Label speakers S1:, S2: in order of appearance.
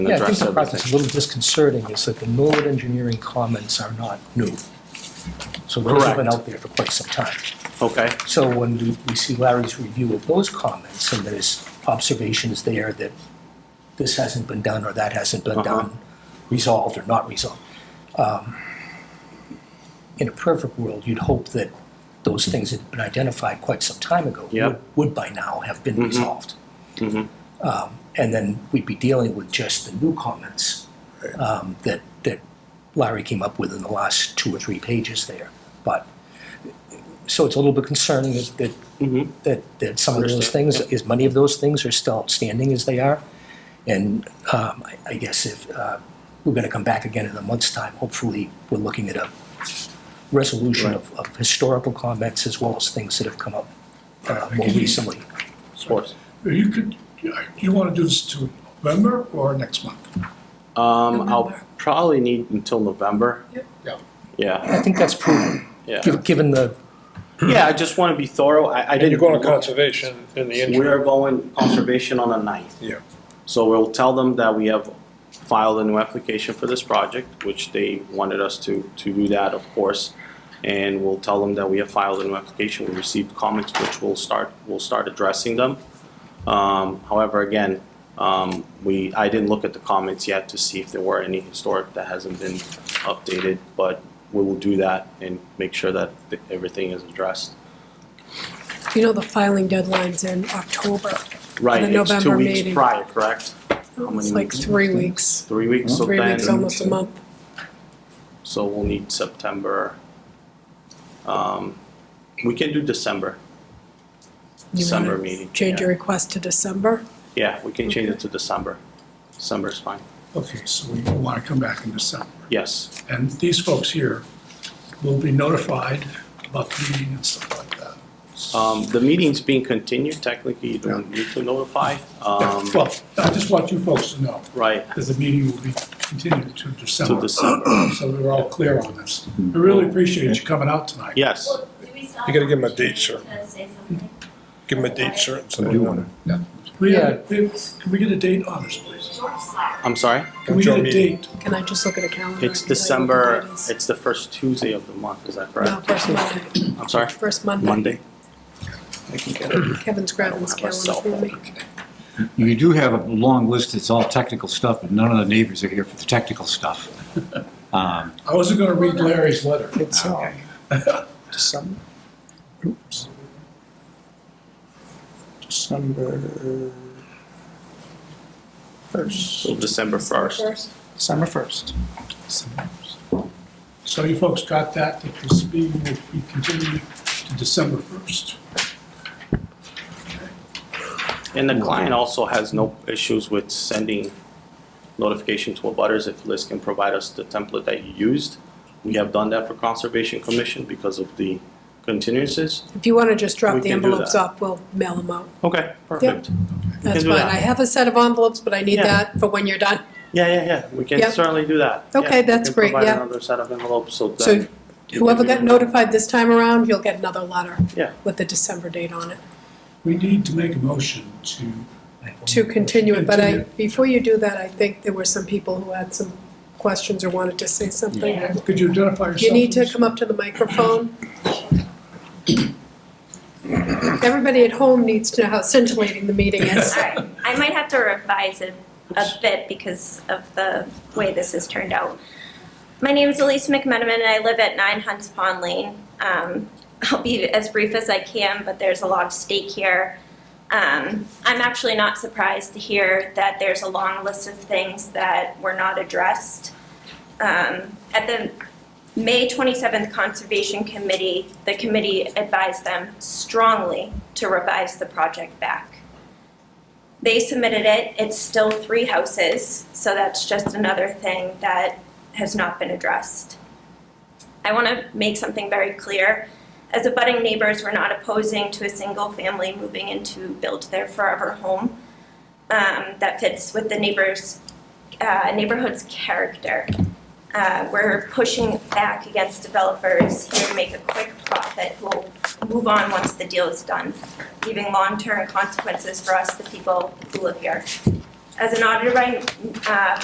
S1: and
S2: Yeah, I think
S1: address
S2: the part that's a
S1: everything.
S2: little disconcerting is that the Norwood engineering comments are not new. So those have been
S1: Correct.
S2: out there for quite some time.
S1: Okay,
S2: So when we, we see Larry's review of those comments and there's observations there that this hasn't been done or that hasn't been
S1: Uh-huh.
S2: done, resolved or not resolved. um, In a perfect world, you'd hope that those things that had been identified quite some time ago
S1: Yep.
S2: would, would by now have been
S1: Mhm.
S2: resolved.
S1: Mhm.
S2: Um, and then we'd be dealing with just the new comments um, that, that Larry came up with in the last two or three pages there. But, so it's a little bit concerning that, that
S3: Mm-hmm.
S1: Mhm.
S2: that, that some of those
S1: Understand,
S2: things, as many of those things are still outstanding as they are. And um, I- I guess if, uh, we're going to come back again in a month's time, hopefully, we're looking at a resolution of of historical comments as well as things that have come up uh, more recently.
S1: of course.
S4: You could, you want to do this to November or next month?
S1: Um, I'll
S5: November.
S1: probably need until November.
S5: Yep.
S4: Yeah.
S1: Yeah,
S2: I think that's prudent,
S1: yeah.
S2: giv- given the,
S1: Yeah, I just wanna be thorough, I, I
S3: And
S1: didn't.
S3: you're going to conservation in the interim.
S1: We're going conservation on the ninth.
S3: Yeah.
S1: So we'll tell them that we have filed a new application for this project, which they wanted us to, to do that, of course. And we'll tell them that we have filed a new application, we received comments, which we'll start, we'll start addressing them. Um, however, again, um, we, I didn't look at the comments yet to see if there were any historic that hasn't been updated, but we will do that and make sure that th- everything is addressed.
S5: You know, the filing deadline's in October.
S1: Right, it's two
S5: November
S1: weeks
S5: meeting.
S1: prior, correct? many
S5: It's like
S1: weeks?
S5: three weeks,
S1: Three weeks, so
S5: three weeks,
S1: then,
S5: almost a month.
S1: so we'll need September. Um, we can do December,
S5: You wanna
S1: December meeting,
S5: Change
S1: yeah.
S5: your request to December?
S1: yeah, we can change it to December, December's fine,
S4: Okay, so we want to come back in December.
S1: yes,
S4: And these folks here will be notified about the meeting and stuff like that.
S1: um, the meeting's being continued, technically, you don't need to notify, um,
S4: Well, I just want you folks to know
S1: right,
S4: that the meeting will be continued to
S1: to
S4: December,
S1: December,
S4: so we're all clear on this. I really appreciate you coming out tonight.
S1: yes,
S6: Well, do we still
S3: You gotta
S6: have
S3: give 'em a
S6: to
S3: date, sir.
S6: say something?
S3: Give them a date certain. so
S7: I
S3: they
S7: do
S3: know.
S7: want
S4: We have, we have- can we get a date on this, please?
S1: I'm sorry?
S4: Can we
S3: When's your
S4: get a
S3: meeting?
S4: date?
S5: Can I just look at a calendar?
S1: It's
S5: I can tell you what the
S1: December,
S5: date is.
S1: it's the first Tuesday of the month, is that
S5: No,
S1: correct?
S5: first Monday,
S1: I'm sorry,
S5: first Monday.
S1: Monday,
S5: Kevin's
S1: I
S5: grabbing
S1: don't
S5: his
S1: have a
S5: calendar
S1: cell
S5: for me.
S7: You do have a long list, it's all technical stuff, but none of the neighbors are here for the technical stuff. Um,
S4: I wasn't going to read Larry's letter.
S2: it's, uh,
S7: okay.
S8: December. Oops. December first.
S1: so December first,
S8: December first.
S4: So you folks got that, that this meeting will be continued to December 1st.
S1: and the client also has no issues with sending notification to abutters if Liz can provide us the template that you used. We have done that for Conservation Commission because of the continuances.
S5: If you want to just
S1: We
S5: drop the
S1: can do
S5: envelopes
S1: that.
S5: off, we'll mail them out.
S1: Okay, perfect.
S5: That's
S1: do
S5: fine.
S1: that.
S5: I have a set of envelopes, but I need
S1: Yeah.
S5: that for when you're done.
S1: Yeah, yeah, yeah, we can
S5: Yeah.
S1: certainly do that. Yeah,
S5: Okay,
S1: we
S5: that's
S1: can
S5: great,
S1: Provide
S5: yeah.
S1: another set of envelopes, so
S5: So
S1: that,
S5: whoever got notified this time around, you'll get another letter
S1: Yeah.
S5: with the December date on it.
S4: We need to make a motion to,
S5: to continue it, but I,
S4: Continue.
S5: before you do that, I think there were some people who had some questions or wanted to say something.
S6: Yeah.
S4: could you identify yourself?
S5: You need to
S4: please?
S5: come up to the microphone. Everybody at home needs to know how scintillating the meeting is.
S6: All right, I might have to revise it a bit because of the way this has turned out. My name is Elise McMenamin, and I live at 9 Hunts Pond Lane. Um, I'll be as brief as I can, but there's a lot of stake here. Um, I'm actually not surprised to hear that there's a long list of things that were not addressed. Um, At the May 27th Conservation Committee, the committee advised them strongly to revise the project back. They submitted it, it's still three houses, so that's just another thing that has not been addressed. I want to make something very clear. As abutting neighbors, we're not opposing to a single family moving in to build their forever home um, that fits with the neighbors, uh, neighborhood's character. Uh, We're pushing back against developers here to make a quick profit who will move on once the deal is done leaving long-term consequences for us, the people who live here. As an auditor by, uh,